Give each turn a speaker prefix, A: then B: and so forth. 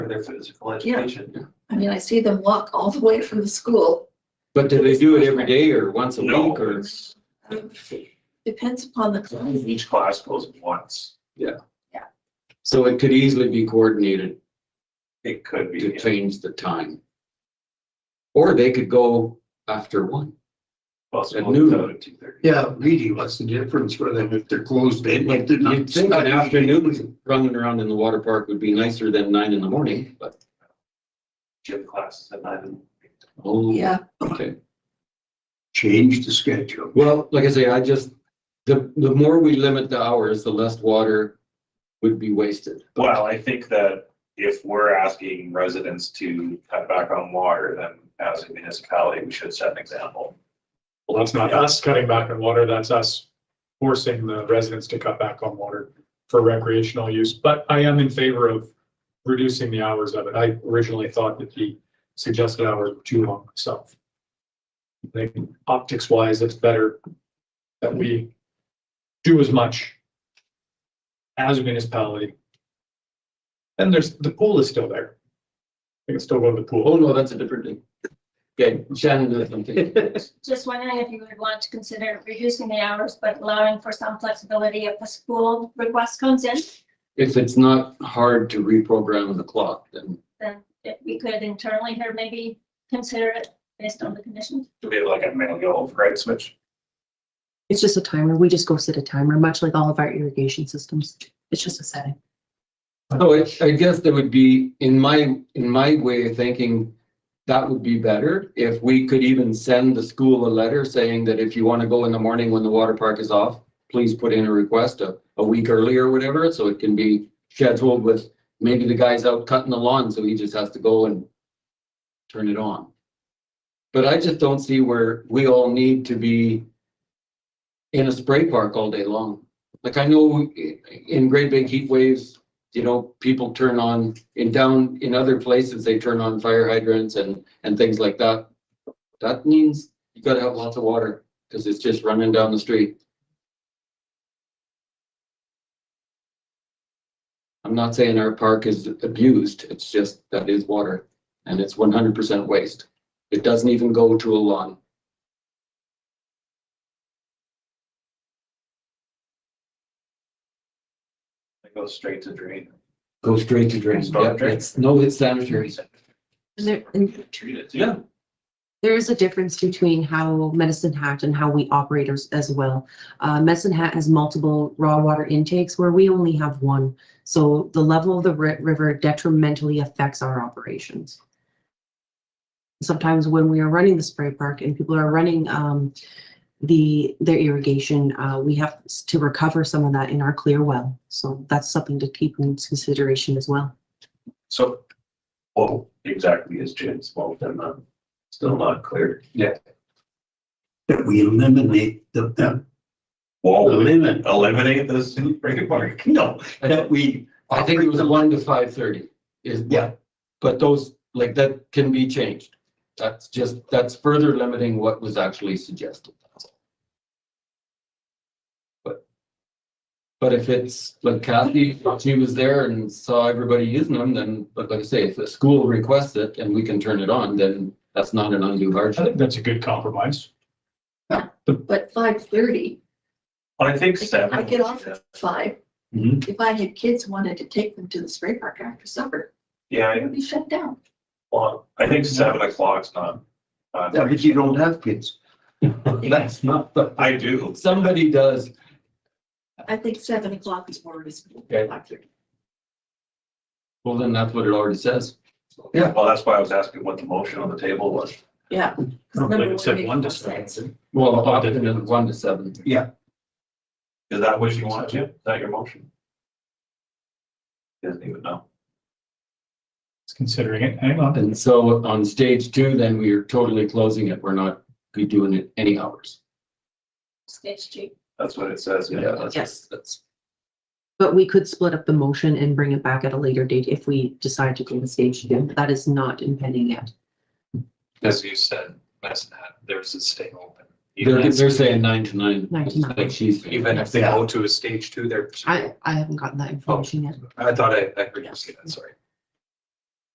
A: their physical education.
B: I mean, I see them walk all the way from the school.
C: But do they do it every day or once a
A: No.
C: week or?
B: Um, Depends upon the class.
A: Each class goes once.
C: So it could easily be coordinated
A: It could
C: to
A: be,
C: change the time. Or they could go after one.
A: possible
C: At noon.
A: two thirty.
D: Yeah, really, what's the difference for them if they're closed in, like they're not.
C: You'd think an afternoon running around in the water park would be nicer than nine in the morning, but,
A: Gym classes at nine.
C: oh,
B: Yeah,
C: okay.
D: Change the schedule.
C: Well, like I say, I just, the, the more we limit the hours, the less water would be wasted.
A: Well, I think that if we're asking residents to cut back on water, then as a municipality, we should set an example.
E: Well, that's not us cutting back on water, that's us forcing the residents to cut back on water for recreational use. But I am in favor of reducing the hours of it. I originally thought that the suggested hours were too long myself. I think optics wise, it's better that we do as much as a municipality. And there's, the pool is still there. They can still go to the pool.
C: Oh, no, that's a different thing. Okay, Shannon does something.
F: Just wondering if you would want to consider reducing the hours, but allowing for some flexibility if the school request comes in,
C: If it's not hard to reprogram the clock, then
F: then if we could internally here maybe consider it based on the conditions.
A: Do we have like a manual for right switch?
G: It's just a timer. We just go set a timer, much like all of our irrigation systems. It's just a setting.
C: So it, I guess that would be, in my, in my way of thinking, that would be better if we could even send the school a letter saying that if you want to go in the morning when the water park is off, please put in a request a, a week early or whatever, so it can be scheduled with, maybe the guy's out cutting the lawn, so he just has to go and turn it on. But I just don't see where we all need to be in a spray park all day long. Like I know i- in great big heat waves, you know, people turn on, in down, in other places, they turn on fire hydrants and, and things like that. That means you gotta have lots of water, cause it's just running down the street. I'm not saying our park is abused, it's just that is water, and it's one hundred percent waste. It doesn't even go to a lawn.
A: It goes straight to drain.
C: Go straight to drain.
A: Storm
C: Yeah,
A: drain.
C: it's, no, it's sanitary.
G: And there, and
A: Treat it.
C: Yeah.
G: there is a difference between how Medicine Hat and how we operate as, as well. Uh, Medicine Hat has multiple raw water intakes where we only have one. So the level of the ri- river detrimentally affects our operations. Sometimes when we are running the spray park and people are running, um, the, their irrigation, uh, we have s- to recover some of that in our clear well. So that's something to keep in consideration as well.
A: So, what exactly is James involved in that? Still not clear. Yeah.
D: That we eliminate the, the
A: Well,
D: limit,
A: eliminate the zoo break park?
D: no, that we.
C: I think it was one to five thirty is. what-
D: Yeah.
C: But those, like, that can be changed. That's just, that's further limiting what was actually suggested. that's all. But, but if it's, like Kathy, she was there and saw everybody using them, then, but like I say, if the school requests it and we can turn it on, then that's not an undue
E: I
C: hardship.
E: think that's a good compromise.
B: but five thirty,
A: I think seven.
B: I get off at five.
C: Mhm.
E: Mm-hmm.
B: If I had kids wanted to take them to the spray park after supper,
A: Yeah,
B: it
A: I-
B: would be shut down.
A: well, I think seven o'clock's not. not-
D: Yeah, but you don't have kids.
C: That's not, the
A: I do.
C: somebody does.
B: I think seven o'clock is more reasonable.
C: Okay.
B: Five thirty.
C: Well, then that's what it already says.
D: Yeah.
A: Well, that's why I was asking what the motion on the table was.
B: Yeah.
E: I don't
B: Number
E: believe it said
B: makes
E: one
B: more
E: to
B: sense.
E: seven.
C: Well, often it's one to seven.
A: Is that what you want, Jim? Is that your motion? He Doesn't even know.
E: It's Considering it, hang on.
C: And so on stage two, then we are totally closing it. We're not be doing it any hours.
F: Stage two.
A: That's what it says.
C: that's-
G: Yes.
C: That's,
G: But we could split up the motion and bring it back at a later date if we decide to go to stage two. That is not impending yet.
H: as you said, that's not, there's a stay open. Even
C: they're,
H: if,
C: they're saying nine to nine.
G: Nine to nine.
C: Like she's.
H: even if they go to a stage two, they're,
G: I, I haven't gotten that information yet.
H: I thought I, I heard you say that, sorry.